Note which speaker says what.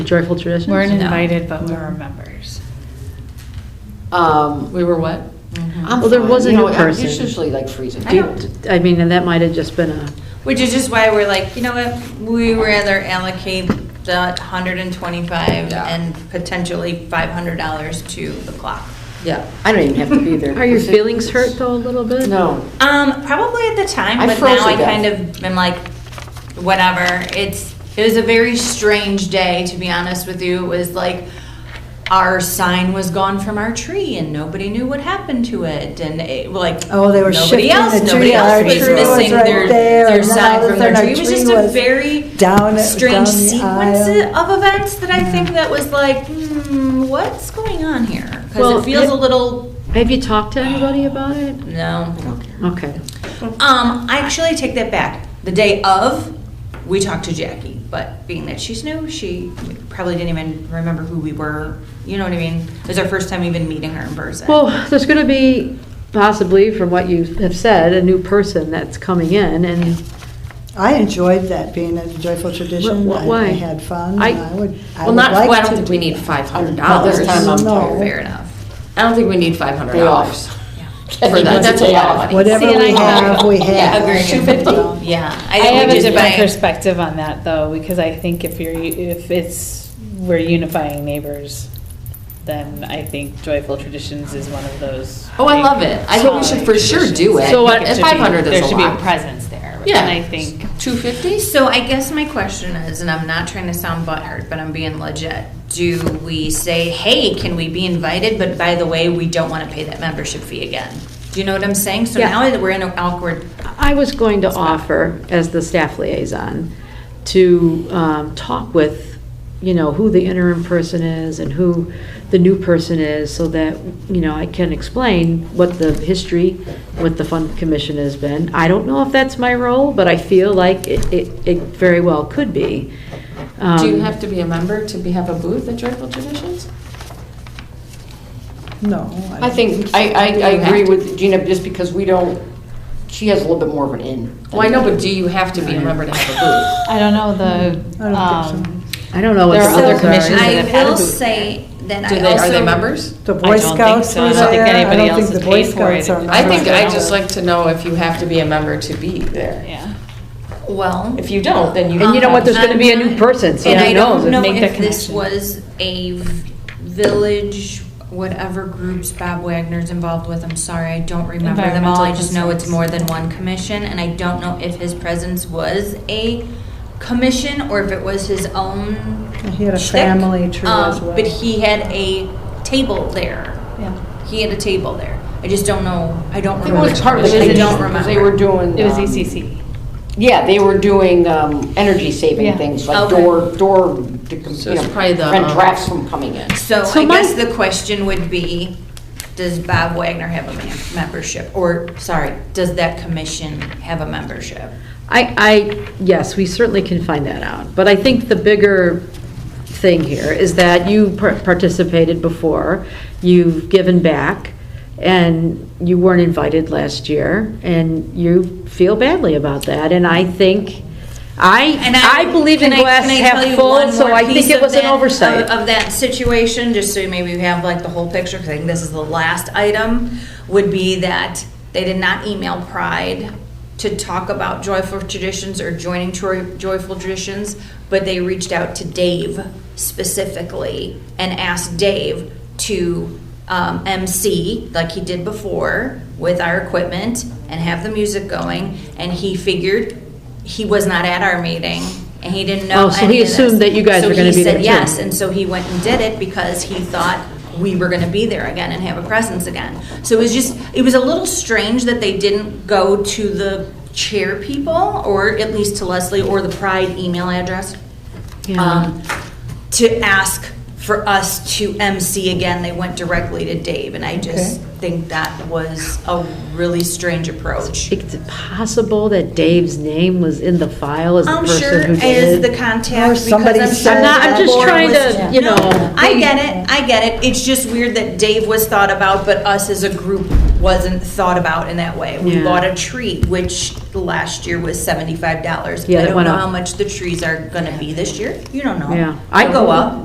Speaker 1: joyful traditions?
Speaker 2: Weren't
Speaker 3: No.
Speaker 2: invited, but we were members.
Speaker 4: Um,
Speaker 1: We were what?
Speaker 4: I'm
Speaker 3: Um,
Speaker 1: Well, there
Speaker 4: fine.
Speaker 1: was a
Speaker 4: You know,
Speaker 1: new
Speaker 4: I'm
Speaker 1: person.
Speaker 4: Usually like freezing.
Speaker 3: I don't-
Speaker 1: I mean, and that might have just been a,
Speaker 3: Which is just why we're like, you know what, we rather allocate that hundred and twenty-five
Speaker 4: Yeah.
Speaker 3: and potentially five hundred dollars to the clock.
Speaker 4: Yeah, I don't even have to be there.
Speaker 1: are your feelings hurt though a little bit?
Speaker 4: No.
Speaker 3: Um, probably at the time,
Speaker 4: I
Speaker 3: but
Speaker 4: froze
Speaker 3: now
Speaker 4: to
Speaker 3: I
Speaker 4: death.
Speaker 3: kind of am like, whatever. It's it was a very strange day to be honest with you. It was like our sign was gone from our tree and nobody knew what happened to it, and it, like
Speaker 5: Oh, they were
Speaker 3: nobody
Speaker 5: shifting
Speaker 3: else,
Speaker 5: the
Speaker 3: nobody
Speaker 5: tree.
Speaker 3: else
Speaker 5: Our
Speaker 3: was
Speaker 5: tree was
Speaker 3: missing
Speaker 5: right
Speaker 3: their
Speaker 5: there,
Speaker 3: their
Speaker 5: and all
Speaker 3: sign
Speaker 5: of a
Speaker 3: from their
Speaker 5: sudden
Speaker 3: tree.
Speaker 5: our
Speaker 3: It was just
Speaker 5: tree
Speaker 3: a
Speaker 5: was
Speaker 3: very
Speaker 5: down-
Speaker 3: strange
Speaker 5: down the
Speaker 3: sequence
Speaker 5: aisle. Mm.
Speaker 3: of events that I think that was like, hmm, what's going on here? Because
Speaker 1: Well,
Speaker 3: it feels
Speaker 1: it-
Speaker 3: a little
Speaker 1: Have you talked to anybody about it?
Speaker 3: no.
Speaker 1: Okay.
Speaker 3: Um, I actually take that back. The day of, we talked to Jackie, but being that she's new, she probably didn't even remember who we were. You know what I mean? It was our first time even meeting her in person.
Speaker 1: Well, there's going to be possibly, from what you have said, a new person that's coming in and.
Speaker 5: I enjoyed that, being at the Joyful Tradition.
Speaker 1: Wh- wh-
Speaker 5: I-
Speaker 1: why?
Speaker 5: I had fun,
Speaker 1: I-
Speaker 5: and I would, I
Speaker 6: Well,
Speaker 5: would
Speaker 6: not, well, I
Speaker 5: like
Speaker 6: don't
Speaker 5: to
Speaker 6: think we
Speaker 5: do
Speaker 6: need
Speaker 5: that.
Speaker 6: five hundred
Speaker 4: Not
Speaker 6: dollars.
Speaker 4: this time, I'm
Speaker 5: No.
Speaker 4: tired.
Speaker 3: fair enough.
Speaker 6: I don't think we need five hundred
Speaker 4: Day
Speaker 6: dollars.
Speaker 4: off.
Speaker 6: For that, that's a lot of money.
Speaker 5: Whatever
Speaker 6: See, and
Speaker 5: we
Speaker 6: I have-
Speaker 5: have, we
Speaker 6: yeah,
Speaker 5: have.
Speaker 6: agreeing.
Speaker 5: $2.50?
Speaker 3: Yeah.
Speaker 2: I
Speaker 3: think
Speaker 2: have
Speaker 3: we
Speaker 2: a
Speaker 3: just
Speaker 2: different
Speaker 3: might-
Speaker 2: perspective on that though, because I think if you're, if it's, we're unifying neighbors, then I think joyful traditions is one of those.
Speaker 6: Oh, I love it. I think we should for sure do it.
Speaker 2: So
Speaker 6: And 500 is a
Speaker 2: There should be a
Speaker 6: lot.
Speaker 2: presence there.
Speaker 6: Yeah.
Speaker 2: And I think,
Speaker 6: Two fifty?
Speaker 3: So I guess my question is, and I'm not trying to sound butthurt, but I'm being legit. Do we say, hey, can we be invited? But by the way, we don't want to pay that membership fee again. Do you know what I'm saying? So
Speaker 1: Yeah.
Speaker 3: now that we're in an awkward
Speaker 1: I was going to offer, as the staff liaison, to um, talk with, you know, who the interim person is and who the new person is, so that, you know, I can explain what the history with the fund commission has been. I don't know if that's my role, but I feel like it, it it very well could be.
Speaker 6: Do you
Speaker 1: Um,
Speaker 6: have to be a member to be, have a booth at Joyful Traditions?
Speaker 5: No.
Speaker 4: I think, I, I, I agree with Gina, just because we don't, she has a little bit more of an in.
Speaker 6: Well, I know, but do you have to be a member to have a booth?
Speaker 2: I don't know
Speaker 5: I
Speaker 2: the,
Speaker 5: don't think so.
Speaker 2: um,
Speaker 1: I don't know what
Speaker 2: There
Speaker 1: the
Speaker 2: are other
Speaker 1: rules
Speaker 2: commissions that
Speaker 3: I
Speaker 2: have had a
Speaker 3: will
Speaker 2: booth.
Speaker 3: say that
Speaker 6: Do
Speaker 3: I
Speaker 6: they,
Speaker 3: also.
Speaker 6: are they members?
Speaker 5: The
Speaker 2: I
Speaker 5: Boy
Speaker 2: don't think
Speaker 5: Scouts
Speaker 2: so.
Speaker 5: were
Speaker 2: I don't think
Speaker 5: there. I
Speaker 2: anybody
Speaker 5: don't
Speaker 2: else
Speaker 5: think
Speaker 2: has
Speaker 5: the Boy
Speaker 2: paid for it.
Speaker 5: Scouts are
Speaker 6: I think
Speaker 5: members.
Speaker 6: i just like to know if you have to be a member to be there.
Speaker 2: yeah.
Speaker 3: Well.
Speaker 6: If you don't, then you.
Speaker 1: And you know what, there's gonna be a new
Speaker 3: Um,
Speaker 1: person, so
Speaker 3: and
Speaker 1: who
Speaker 3: I
Speaker 1: knows?
Speaker 3: don't know
Speaker 2: Make that
Speaker 3: if this
Speaker 2: connection.
Speaker 3: was a v- village, whatever groups Bob Wagner's involved with, I'm sorry, I don't remember them all. I
Speaker 2: Environmental
Speaker 3: just know it's
Speaker 2: concerns.
Speaker 3: more than one commission, and I don't know if his presence was a commission or if it was his own
Speaker 5: He had a
Speaker 3: shtick.
Speaker 5: family tree as
Speaker 3: Um,
Speaker 5: well.
Speaker 3: But he had a table there.
Speaker 2: Yeah.
Speaker 3: He had a table there. I just don't know, I don't
Speaker 4: I think
Speaker 3: remember.
Speaker 4: It was part of
Speaker 3: I
Speaker 4: the
Speaker 3: don't
Speaker 4: commission,
Speaker 3: remember.
Speaker 4: because they were doing.
Speaker 2: It was
Speaker 1: E
Speaker 2: E
Speaker 4: um,
Speaker 2: ECC.
Speaker 4: Yeah, they were doing, um, energy
Speaker 2: Yeah.
Speaker 4: saving things, like
Speaker 3: Okay.
Speaker 4: door, door, to, you
Speaker 6: So it's
Speaker 4: know,
Speaker 6: probably the,
Speaker 4: prevent
Speaker 6: um,
Speaker 4: drafts from coming in.
Speaker 3: So
Speaker 1: So
Speaker 3: I
Speaker 1: my-
Speaker 3: guess the question would be, does Bob Wagner have a mem- membership? Or, sorry, does that commission have a membership?
Speaker 1: I, I, yes, we certainly can find that out, but I think the bigger thing here is that you par- participated before, you've given back, and you weren't invited last year, and you feel badly about that, and I think, I,
Speaker 3: And
Speaker 1: I believe in
Speaker 3: can I-
Speaker 1: glass
Speaker 3: can I tell
Speaker 1: half
Speaker 3: you
Speaker 1: full,
Speaker 3: one
Speaker 1: so
Speaker 3: more
Speaker 1: I think
Speaker 3: piece
Speaker 1: it
Speaker 3: of
Speaker 1: was an
Speaker 3: that-
Speaker 1: oversight.
Speaker 3: Of of that situation, just so maybe we have like the whole picture, 'cause I think this is the last item, would be that they did not email Pride to talk about Joyful Traditions or joining Troy- Joyful Traditions, but they reached out to Dave specifically and asked Dave to um, MC, like he did before, with our equipment and have the music going, and he figured he was not at our meeting, and he didn't know
Speaker 1: Oh, so he
Speaker 3: any of this.
Speaker 1: assumed that you guys
Speaker 3: So
Speaker 1: were gonna
Speaker 3: he
Speaker 1: be there,
Speaker 3: said
Speaker 1: too.
Speaker 3: yes, and so he went and did it because he thought we were gonna be there again and have a presence again. So it was just, it was a little strange that they didn't go to the chair people, or at least to Leslie, or the Pride email address.
Speaker 1: Yeah.
Speaker 3: um, To ask for us to MC again, they went directly to Dave, and I just think that was a really strange approach.
Speaker 1: Is it possible that Dave's name was in the file as the
Speaker 3: I'm
Speaker 1: person
Speaker 3: sure
Speaker 1: who
Speaker 3: is
Speaker 1: did
Speaker 3: the
Speaker 1: it?
Speaker 3: contact.
Speaker 5: Or
Speaker 3: because
Speaker 5: somebody
Speaker 3: I'm sure
Speaker 5: said
Speaker 3: the
Speaker 5: that. I'm just
Speaker 3: board
Speaker 1: trying
Speaker 3: was-
Speaker 1: to, you
Speaker 3: No,
Speaker 1: know,
Speaker 3: I get it, I get it. It's just weird that Dave was thought about, but us as a group wasn't thought about in that way. We
Speaker 1: Yeah.
Speaker 3: bought a tree, which last year was seventy-five dollars.
Speaker 1: Yeah,
Speaker 3: I
Speaker 1: that
Speaker 3: don't
Speaker 1: went
Speaker 3: know
Speaker 1: up.
Speaker 3: how much the trees are gonna be this year. You don't know.
Speaker 1: Yeah.
Speaker 3: I go up.